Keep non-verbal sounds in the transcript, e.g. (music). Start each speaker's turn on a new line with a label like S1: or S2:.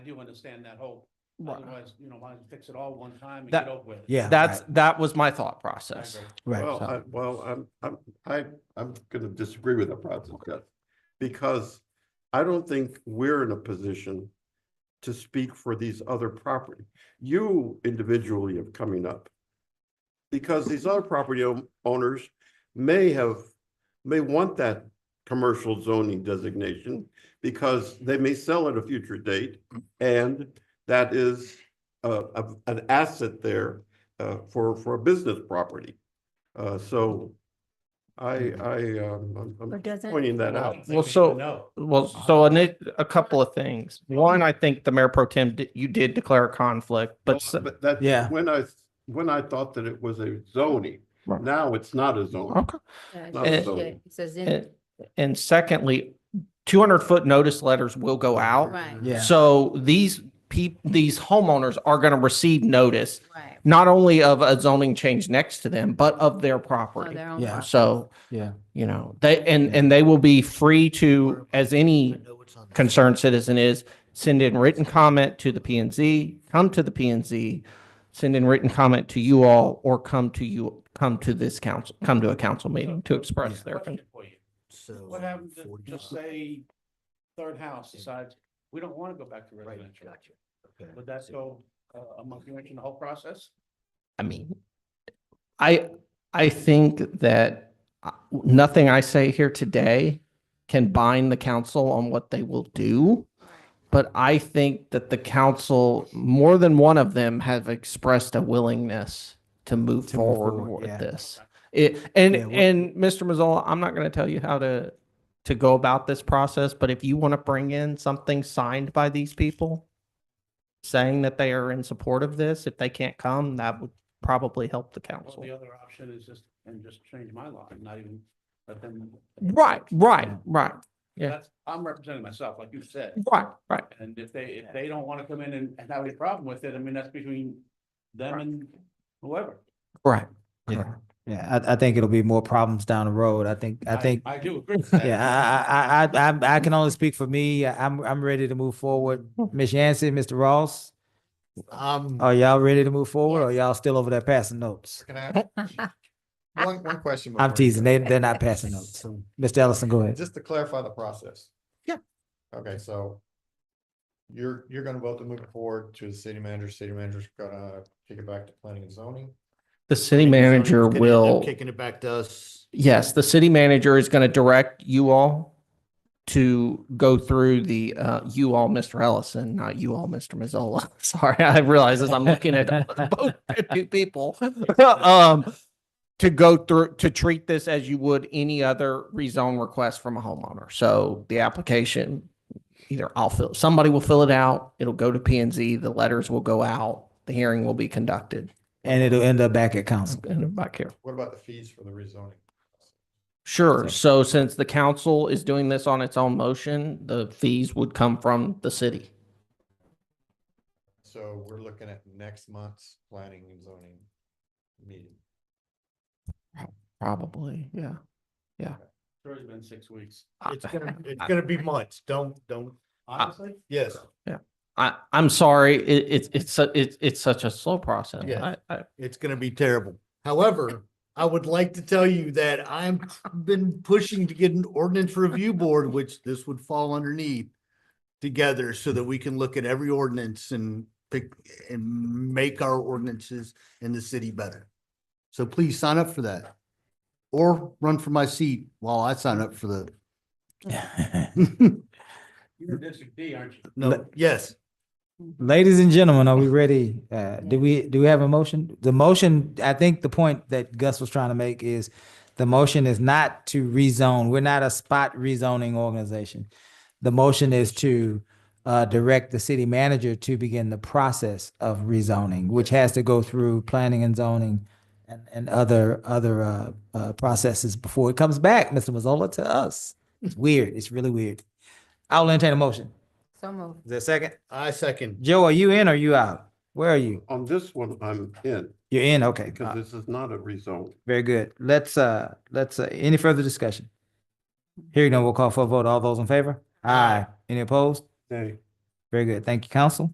S1: I do understand that whole,
S2: Right.
S1: otherwise, you know, why don't you fix it all one time and
S3: That-
S1: get over with? it?
S2: Yeah.
S3: That's,
S2: right,
S3: that was my thought
S1: I
S3: process.
S1: agree.
S2: Right.
S4: Well,
S3: so-
S4: I, well, I'm, I'm, I, I'm gonna disagree with that process, Jeff, because I don't think we're in a position to speak for these other property. You individually are coming up. Because these other property own- owners may have, may want that commercial zoning designation because they may sell at a future date and that is uh, a, an asset there uh, for, for a business property. Uh, so I, I, um, I'm-
S5: Or
S4: I'm
S5: doesn't,
S4: pointing that
S1: Well, I
S4: out.
S1: don't think
S3: Well,
S1: we should
S3: so-
S1: know.
S3: Well,
S2: Uh-huh.
S3: so a, ni- a couple of things. One, I think the mayor pro tem, di- you did declare a conflict, but s-
S4: Well, But that's
S2: Yeah.
S4: when I, when I thought that it was a zoning,
S3: Right.
S4: now it's not a zoning.
S3: Okay.
S5: uh,
S4: not
S3: a
S5: it
S4: zoning.
S5: should- it says
S3: And,
S5: in,
S3: and secondly, two hundred foot notice letters will go out.
S5: right,
S2: Yeah.
S3: So these peop, these homeowners are going to receive notice,
S5: right. Oh,
S3: not only of a zoning change next to them, but of their
S5: for
S3: property.
S5: their own
S2: Yeah.
S5: property.
S3: So,
S2: Yeah.
S3: you know, they, and, and they will be free to, as any concerned citizen is send in written comment to the P and Z, come to the P and Z, send in written comment to you all, or come to you, come to this council, come to a council meeting to express their. con-
S1: Question for you. What happens if, just say, third house decides, we don't want to go back to residential? Would that go uh, a monkey wrench in the whole process?
S3: I mean, I, I think that uh, nothing I say here today can bind the council on what they will do. But I think that the council, more than one of them have expressed a willingness to move
S2: To move
S3: forward
S2: forward,
S3: with
S2: yeah.
S3: this. It, and,
S2: Yeah, what-
S3: and Mr. Mazzola, I'm not going to tell you how to, to go about this process, but if you want to bring in something signed by these people saying that they are in support of this, if they can't come, that would probably help the
S1: Well,
S3: council.
S1: the other option is just, and just change my law and not even let them.
S3: Right, right, right, yeah.
S1: That's, I'm representing myself, like you said.
S3: right, right.
S1: And if they, if they don't want to come in and and have any problem with it, I mean, that's between them and whoever.
S3: Right.
S2: Yeah.
S3: Correct.
S2: Yeah, I, I think it'll be more problems down the road. I think, I think,
S1: I do agree with that.
S2: yeah, I, I, I, I, I can only speak for me. I'm, I'm ready to move forward. Ms. Yancey, Mr. Ross,
S6: Um,
S2: are y'all ready to move forward or
S5: Yes.
S2: y'all still over there passing notes?
S6: can I, one, one question.
S2: I'm
S6: before you
S2: teasing.
S6: go.
S2: They, they're not
S6: (laughs)
S2: passing notes. Mr. Ellison, go ahead.
S6: Just to clarify the process.
S3: Yeah.
S6: Okay, so you're, you're gonna vote to move it forward to the city manager, city manager's gonna take it back to planning and zoning.
S3: The city manager will.
S7: Kicking it back to us.
S3: Yes, the city manager is going to direct you all to go through the, uh, you all, Mr. Ellison, not you all, Mr. Mazzola. (laughs) Sorry, I realize as I'm looking at (laughs) both two people. (laughs) Um, to go through, to treat this as you would any other rezone request from a homeowner. So the application, either I'll fill, somebody will fill it out, it'll go to P and Z, the letters will go out, the hearing will be conducted.
S2: And it'll end up back at council. (laughs)
S3: And back here.
S6: What about the fees for the rezoning?
S3: Sure. So since the council is doing this on its own motion, the fees would come from the city.
S6: So we're looking at next month's planning and zoning meeting.
S3: Probably, yeah.
S1: Sure, It's been six weeks.
S3: Uh,
S7: It's
S3: (laughs)
S7: gonna, it's gonna be months. Don't, don't,
S1: Honestly,
S7: yes.
S3: I, I'm sorry, it, it's, it's, su- it's, it's such a slow process.
S7: Yeah.
S3: I, I,
S7: It's gonna be terrible. However, I would like to tell you that I'm been pushing to get an ordinance review board, which this would fall underneath. Together so that we can look at every ordinance and pick and make our ordinances in the city better. So please sign up for that. Or run for my seat while I sign up for the. (laughs)
S1: you're District D, aren't you?
S7: No, yes.
S2: Ladies and gentlemen, are we ready? Uh, do we, do we have a motion? The motion, I think the point that Gus was trying to make is the motion is not to rezone. We're not a spot rezoning organization. The motion is to uh, direct the city manager to begin the process of rezoning, which has to go through planning and zoning and, and other, other uh, uh, processes before it comes back, Mr. Mazzola, to us. It's weird. It's really weird. I'll entertain a motion.
S5: (laughs) So moved.
S2: Is there a second?
S7: I second.
S2: Joe, are you in or you out? Where are you?
S4: On this one, I'm in,
S2: You're in, okay.
S4: because
S2: Uh,
S4: this is not a rezone.
S2: Very good. Let's, uh, let's, uh, any further discussion? Hearing none, we'll call for a vote. All those in favor? Aye. Any opposed?
S4: Nay.
S2: Very good. Thank you, council.